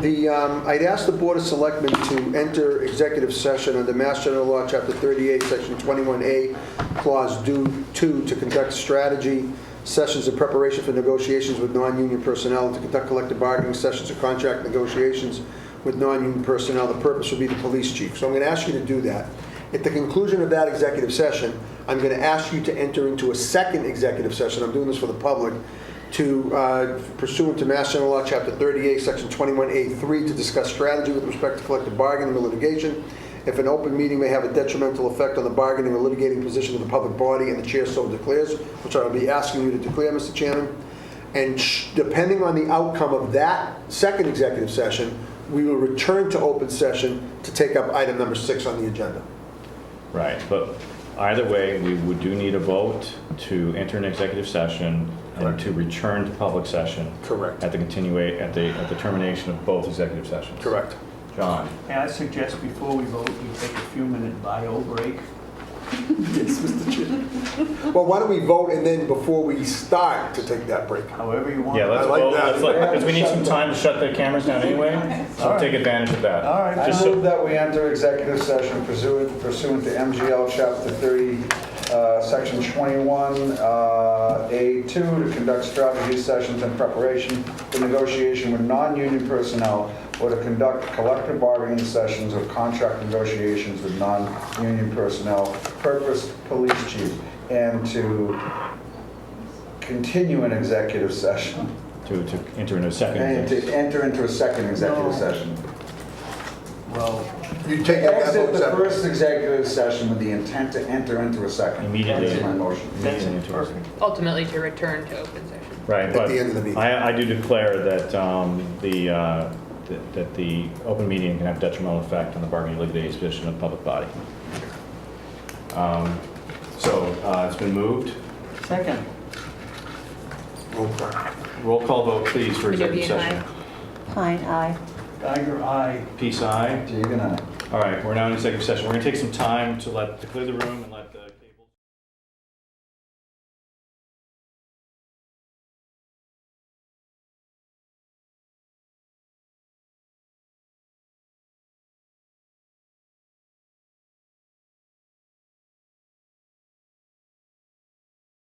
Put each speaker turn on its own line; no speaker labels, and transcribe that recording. The, um, I'd ask the Board of Selectmen to enter executive session under Mass General Law, Chapter 38, Section 21A, Clause Do- 2, to conduct strategy sessions in preparation for negotiations with non-union personnel, and to conduct collective bargaining sessions or contract negotiations with non-union personnel. The purpose would be the police chief. So I'm going to ask you to do that. At the conclusion of that executive session, I'm going to ask you to enter into a second executive session. I'm doing this for the public to uh, pursuant to Mass General Law, Chapter 38, Section 21A3, to discuss strategy with respect to collective bargaining or litigation. If an open meeting may have a detrimental effect on the bargaining or litigating position of the public body, and the chair so declares, which I'll be asking you to declare, Mr. Chairman, and sh- depending on the outcome of that second executive session, we will return to open session to take up item number six on the agenda.
Right, but either way, we would do need a vote to enter an executive session and
Correct.
to return to public session.
Correct.
At the continua, at the, at the termination of both executive sessions.
Correct.
John,
May I suggest before we vote, you take a few minute bio break?
Well, why don't we vote and then before we start to take that break?
However you want.
yeah, let's
I like
vote,
that.
let's, let- because we need some time to shut the cameras down anyway, so
Alright.
take advantage of that.
All right.
Just
I
so-
move that we enter executive session pursuant pursuant to MGL Chapter 30, uh, Section 21, uh, A2, to conduct strategy sessions in preparation for negotiation with non-union personnel or to conduct collective bargaining sessions or contract negotiations with non-union personnel, purpose police chief, and to continue an executive session,
To, to enter in a
and to
second.
enter into a second executive
No.
session.
Well,
You take up that
Exit
vote
the
separate.
first executive session with the intent to enter into a second.
Immediately.
That's my motion.
that's
Immediately into a
perfect.
ultimately to return to open session.
Right,
At
but
the end of the meeting.
I, I do declare that, um, the, uh, that- that the open meeting can have detrimental effect on the bargaining litigating position of the public body. Um, So, uh, it's been moved.
Second,
Roll call vote, please, for executive
Hadopian,
session.
Pine, aye.
Geiger, aye.
Peace, aye.
Deegan, aye.
All right, we're now in executive session. We're gonna take some time to let, to clear the room and let the